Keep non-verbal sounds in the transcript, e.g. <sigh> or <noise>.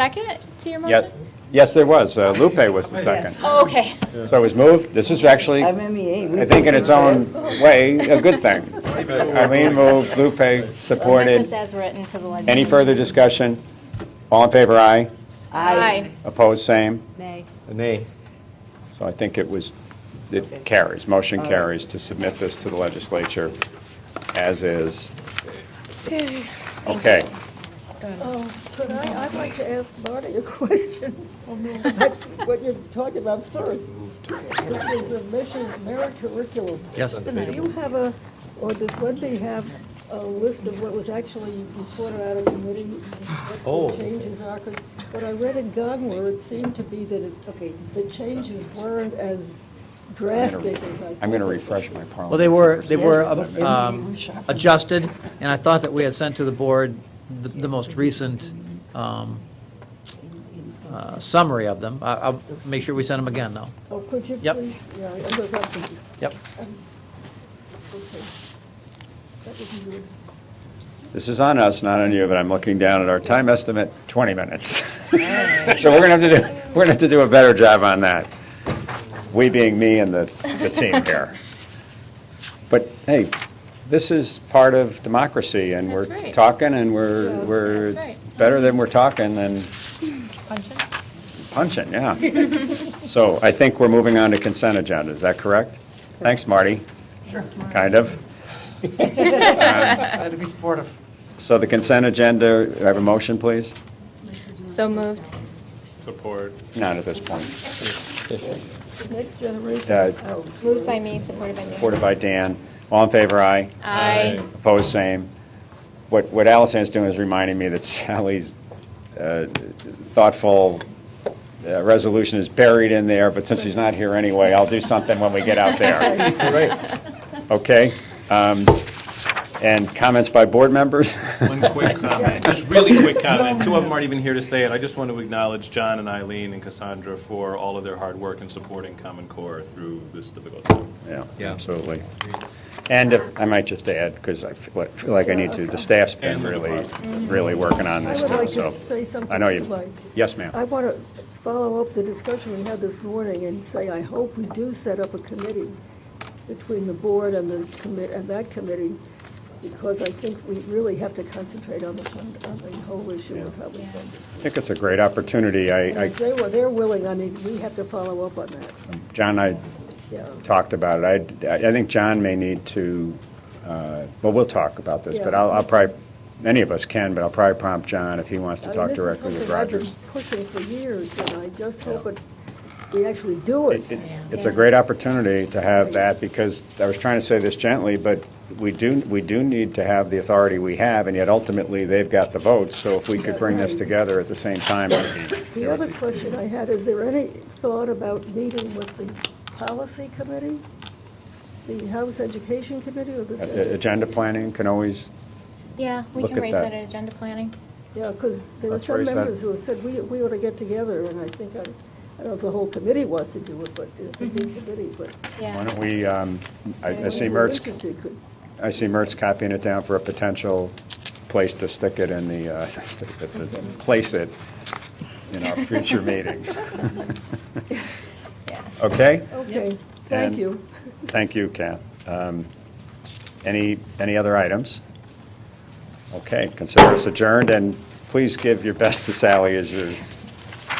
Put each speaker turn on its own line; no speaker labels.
Second to your
Yes,
motion?
yes, there was. Uh, Lupe was the second.
Oh, okay.
So it was moved. This is actually,
I
I
mean,
think in its own way, a good thing. Eileen moved, Lupe
Amendments
supported.
as written for the legislature.
Any further discussion? All in favor, aye.
Aye.
Opposed, same.
Nay.
Nay.
So I think it was, it carries, motion carries to submit this to the legislature as is. Okay.
Um, Could I, I'd like to ask Marty a <laughs> question, what you're talking about first, which is the mission merit curriculum.
Yes.
Do you have a, or does Wendy have a list of what was actually reported out of committee,
Oh.
what the changes are? 'Cause what I read in Gonwar, it seemed to be that it, okay, the changes weren't as drastic as I...
I'm going to
thought.
refresh my parliament.
Well, they were, they were um, adjusted, and I thought that we had sent to the board the the most recent um, uh, summary of them. I- I'll make sure we send them again, though.
Oh, could you please?
Yep.
Yeah, I look up to you.
Yep.
Um, Okay. That would be good.
This is on us, not on you, but I'm looking down at our time estimate, 20 minutes. <laughs> So we're going to have to do, we're going to have to do a better job on that, we being me and the, the team here. But hey, this is part of democracy, and we're
That's right.
talking, and we're,
Yeah.
we're,
That's right.
it's better than we're talking than
Function?
punching, yeah.
<laughs>
So I think we're moving on to consent agenda, is that correct? Thanks, Marty. Sure. Kind of.
had to be supportive.
So the consent agenda, do I have a motion, please?
<laughs> So moved.
Not at this point.
The Next generation.
Uh,
Oh,
Moved by me, supported by me.
Supported by Dan. All in favor, aye.
Aye.
Opposed, same. What what Allison's doing is reminding me that <laughs> Sally's uh, thoughtful uh, resolution is buried in there, but since she's not here anyway, I'll do something when we get
<laughs>
out there. Okay? Um, And comments by board members?
One
<laughs>
quick uh, comment, just really quick comment. Two of them aren't even here to say it. I just want to acknowledge John and Eileen and Cassandra for all of their hard work in supporting Common Core through this difficult time.
Yeah,
Yeah.
absolutely. And if- I might just add, because I feel like- feel like I need to, the staff's been
And the
really, really working on this
I would
too,
like
so.
to say something.
I know
if
you,
like.
yes, ma'am.
I want to follow up the discussion we had this morning and say, I hope we do set up a committee between the board and the commit, and that committee, because I think we really have to concentrate on the, fund- on the whole issue of public funding.
I think it's a great opportunity.
And
I,
if
I-
they were, they're willing, I mean, we have to follow up on that,
John, and
yeah.
I talked about it. I, I think John may need to, uh, well, we'll talk about this, but
Yeah.
I'll, I'll probably, many of us can, but I'll probably prompt John if he wants
I
to
mean,
talk
this is
directly with
something I've been
Rogers.
pushing for years, and I just hope that we actually do it.
It- it- It's a great opportunity to have that, because I was trying to say this gently, but we do, we do need to have the authority we have, and yet ultimately, they've got the votes, so if we could bring this together at the same time, it'd be-
The other question I had, is there any thought about meeting with the policy committee? The House Education Committee or
uh, uh,
the...
agenda planning can always,
Yeah, we
Look
can
at
raise
that.
that at agenda planning.
Yeah, because there were
Let's raise
some
that.
members who have said, we we ought to get together, and I think, I I don't know if the whole committee wants to do it, but it's a big committee, but...
why
Yeah.
don't we, um, I I see
anyone
Mertz
interested could-
I see Mertz copying it down for a potential place to stick it in the, uh, <laughs> stick it, to place it in our future meetings. <laughs>
Yeah.
Okay?
Okay, thank
And-
you.
Thank you, Kath. Um, Any, any other items? Okay, consider us adjourned, and please give your best to Sally as you're